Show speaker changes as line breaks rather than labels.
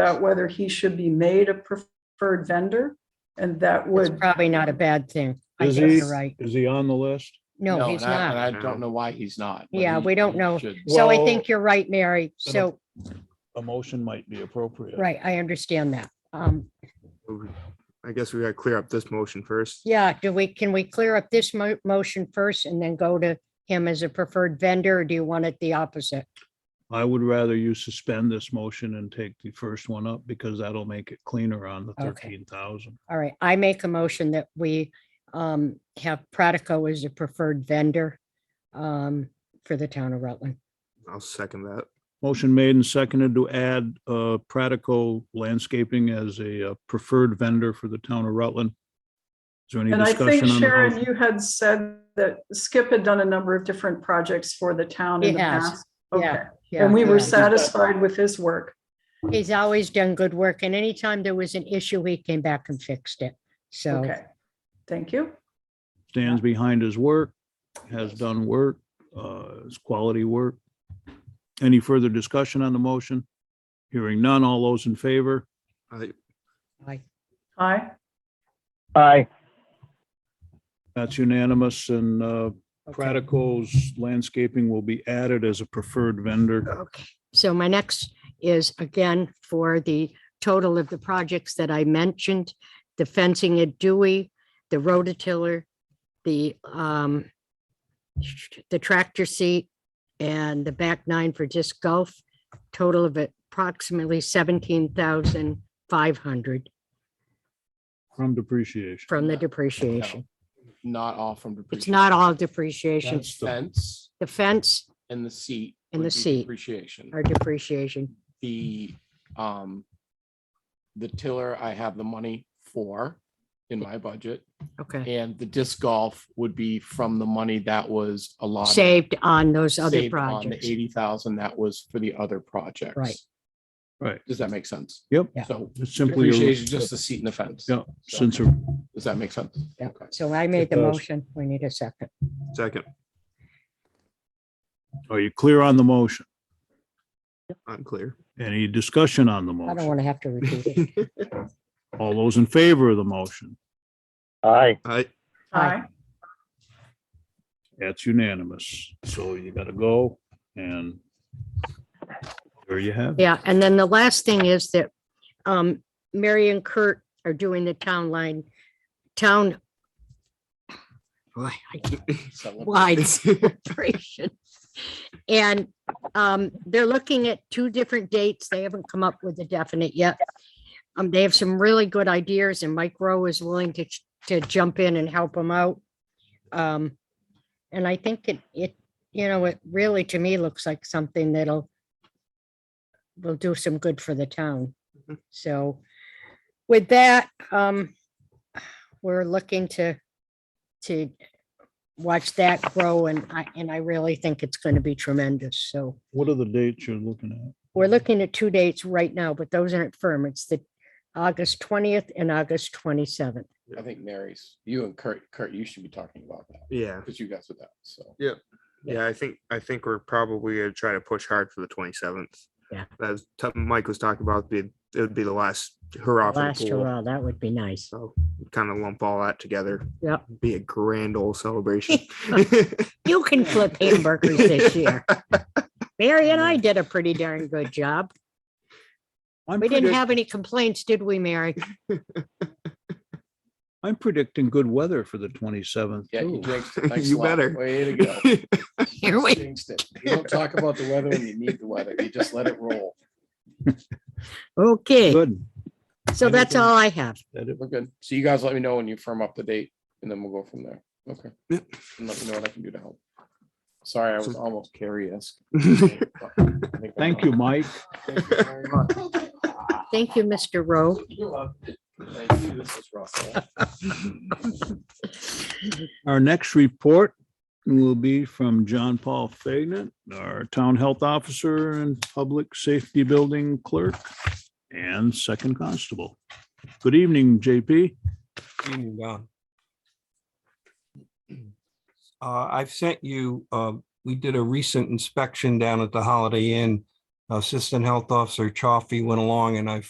about whether he should be made a preferred vendor. And that
It's
would,
probably not a bad thing. I
Is
think
he-
you're right.
Is he on the list?
No, he's
and I-
not.
And I don't know why he's not. but
Yeah,
he-
we don't
he
know.
should.
So I
Well,
think you're right, Mary.
then
So,
A motion might be appropriate.
right, I understand that. Um,
I guess we gotta clear up this motion first.
yeah, do we, can we clear up this mo- motion first and then go to him as a preferred vendor? Or do you want it the opposite?
I would rather you suspend this motion and take the first one up because that'll make it cleaner on the
Okay.
thirteen thousand.
All right, I make a motion that we um have Pratico as a preferred vendor um for the town of Rutland.
I'll second that.
Motion made and seconded to add uh Pratico Landscaping as a uh, preferred vendor for the town of Rutland. Is there any
and I think
discussion on the
Sharon,
motion?
you had said that Skip had done a number of different projects for the town in
He
the
has,
past. Okay,
Yeah,
and we were
yeah. uh,
satisfied with his work.
He's always done good work and anytime there was an issue, he came back and fixed it. So,
Okay, thank you.
Stands behind his work, has done work, uh, it's quality work. Any further discussion on the motion? Hearing none, all those in favor?
I-
I-
Aye,
Aye.
That's unanimous and uh,
Okay.
Pratico's landscaping will be added as a preferred vendor.
okay. So my next is again for the total of the projects that I mentioned, the fencing at Dewey, the rototiller, the um the tractor seat and the back nine for disc golf, total of approximately seventeen thousand five hundred
From depreciation.
from the depreciation.
Not all from depreciation.
It's not all depreciation.
The Fence
The fence
and the seat.
And
would
the
be
seat.
Depreciation.
or depreciation.
The, um, the tiller, I have the money for in my budget.
Okay.
And the disc golf would be from the money that was allotted.
Saved on those other
saved on the
projects.
Eighty thousand that was for the other projects.
Right.
Right.
Does that make sense?
Yep.
Yeah.
So
It's simply, a-
depreciation, is just the seat and the fence.
yeah, since a-
Does that make sense?
Yeah.
Okay.
So I made the
Because-
motion. We need a second.
Second,
are you clear on the motion?
I'm clear.
Any discussion on the
I don't
motion?
want to have to repeat it.
All those in favor of the motion?
Aye.
I,
aye,
That's unanimous. So you gotta go and there you have it.
Yeah, and then the last thing is that um, Mary and Kurt are doing the town line, town. Boy, I
So-
wide celebration. And um, they're looking at two different dates. They haven't come up with a definite yet. Um, they have some really good ideas and Mike Rowe is willing to, ch- to jump in and help them out. Um, and I think it, it, you know, it really to me looks like something that'll will do some good for the town.
Mhm.
So with that, um, we're looking to to watch that grow and I, and I really think it's going to be tremendous. So
What are the dates you're looking at?
we're looking at two dates right now, but those aren't firm. It's the August 20th and August 27th.
I think Mary's, you and Kurt, Kurt, you should be talking about that
yeah,
because you guys with that. So
yeah, I think, I think we're probably gonna try to push hard for the twenty-seventh.
Yeah.
As t- Mike was talking about, it'd be, it would be the last hurrah for
Last
the pool.
hurrah, that would be nice.
So kind of lump all that together.
Yep.
Be a grand old celebration.
You can flip hamburgers this year. Mary and I did a pretty darn good job.
I'm
We didn't
predict-
have any complaints, did we, Mary?
I'm predicting good weather for the twenty-seventh.
yeah, you jinxed it. Thanks a
You
lot.
better.
Way to go.
Here we-
Jinxed it. You don't talk about the weather when you need the weather. You just let it roll.
Okay,
Good.
so that's all I have.
That it-
We're good. So you guys let me know when you firm up the date and then we'll go from there. Okay.
Yep.
And let me know what I can do to help. Sorry, I was
So-
almost curious.
Thank you, Mike.
Thank you very much.
Thank you, Mr. Rowe.
You're welcome. Thank you. This is Russell.
Our next report will be from John Paul Fagnan, our Town Health Officer and Public Safety Building Clerk and Second Constable. Good evening, JP.
Evening, Don. Uh, I've sent you, uh, we did a recent inspection down at the Holiday Inn. Assistant Health Officer Chaffee went along and I